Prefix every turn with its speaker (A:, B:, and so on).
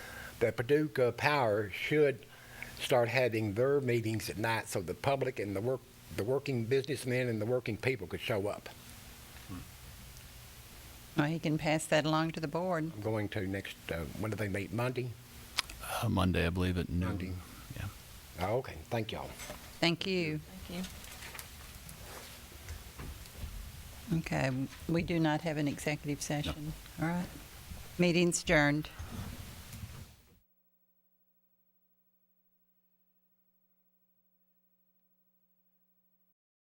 A: that Paducah Power should start having their meetings at night so the public and the work, the working businessmen and the working people could show up.
B: Well, he can pass that along to the board.
A: I'm going to next, uh, when do they meet? Monday?
C: Uh, Monday, I believe, at noon.
A: Monday.
C: Yeah.
A: Oh, okay, thank y'all.
B: Thank you.
D: Thank you.
B: Okay, we do not have an executive session. All right. Meeting's adjourned.